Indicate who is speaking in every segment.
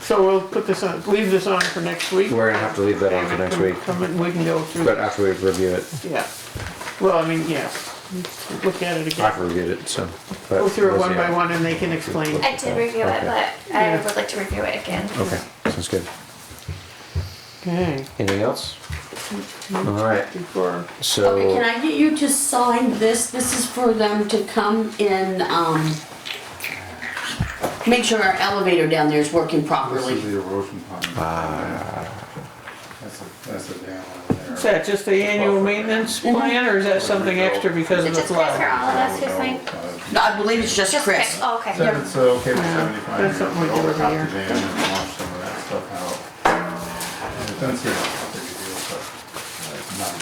Speaker 1: So we'll put this on, leave this on for next week.
Speaker 2: We're gonna have to leave that on for
Speaker 1: And
Speaker 2: next
Speaker 1: come-
Speaker 2: week,
Speaker 1: Come and we can go through,
Speaker 2: but
Speaker 1: that.
Speaker 2: after we review it,
Speaker 1: yeah. Well, I mean, yeah, look at it again.
Speaker 2: after we reviewed it, so. but
Speaker 1: Go through it
Speaker 2: we'll
Speaker 1: one
Speaker 2: see
Speaker 1: by
Speaker 2: how-
Speaker 1: one and they can explain.
Speaker 3: I did review it,
Speaker 2: Oh, Okay.
Speaker 3: but I
Speaker 1: Yeah.
Speaker 3: would like to review it again.
Speaker 2: Okay, sounds good.
Speaker 1: Okay,
Speaker 2: Anything else? All right,
Speaker 1: before,
Speaker 4: Okay,
Speaker 2: so,
Speaker 4: can I get you to sign this? This is for them to come in, um, make sure our elevator down there is working
Speaker 5: This is
Speaker 4: properly.
Speaker 5: the erosion pond. That's a, that's a dam over
Speaker 1: is
Speaker 5: there.
Speaker 1: that just the annual maintenance plan or is that something extra because of
Speaker 3: Is
Speaker 1: the
Speaker 3: it just Chris or
Speaker 1: flood?
Speaker 3: all of us who's
Speaker 5: No,
Speaker 3: like?
Speaker 5: uh,
Speaker 4: No, I believe it's just
Speaker 3: Just Chris,
Speaker 4: Chris.
Speaker 3: oh, okay.
Speaker 5: Said it's uh, okay for seventy-five
Speaker 1: that's
Speaker 5: years
Speaker 1: something we
Speaker 5: to
Speaker 1: do every
Speaker 5: overtop
Speaker 1: year.
Speaker 5: the dam and wash some of that stuff out. It doesn't seem like a big deal, but uh, it's not.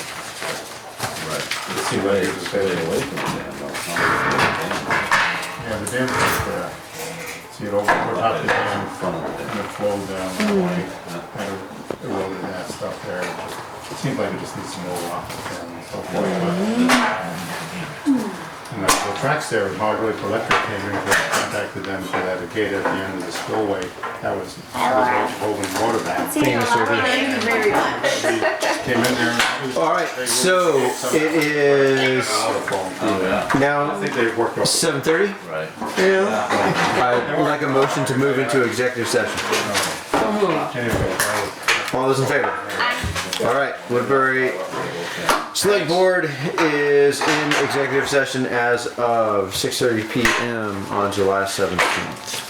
Speaker 5: It seems like it's a big deal. Yeah, the dam's just there. See, it overtopped the dam from, and it flowed down that way, kind of eroded that stuff there. It just- It seems like it just needs some more rock and so forth, but. And the the tracks there, Margaret Electric came in, they contacted them for that gate at the end of the spillway. That was, that was holding water back.
Speaker 3: See,
Speaker 2: Thanks,
Speaker 3: I'll-
Speaker 2: Ruby.
Speaker 4: Thank you very much.
Speaker 5: Came in there. and it was-
Speaker 2: all right,
Speaker 5: they were-
Speaker 2: so
Speaker 5: some-
Speaker 2: it is
Speaker 5: Out of phone. I
Speaker 2: now
Speaker 5: think they worked off.
Speaker 2: seven thirty.
Speaker 1: Yeah,
Speaker 2: I'd like a motion to move into executive session.
Speaker 1: so move.
Speaker 5: Anyway, that was-
Speaker 2: All those in favor? All right, Woodbury Select Board is in executive session as of six thirty PM on July seventeenth.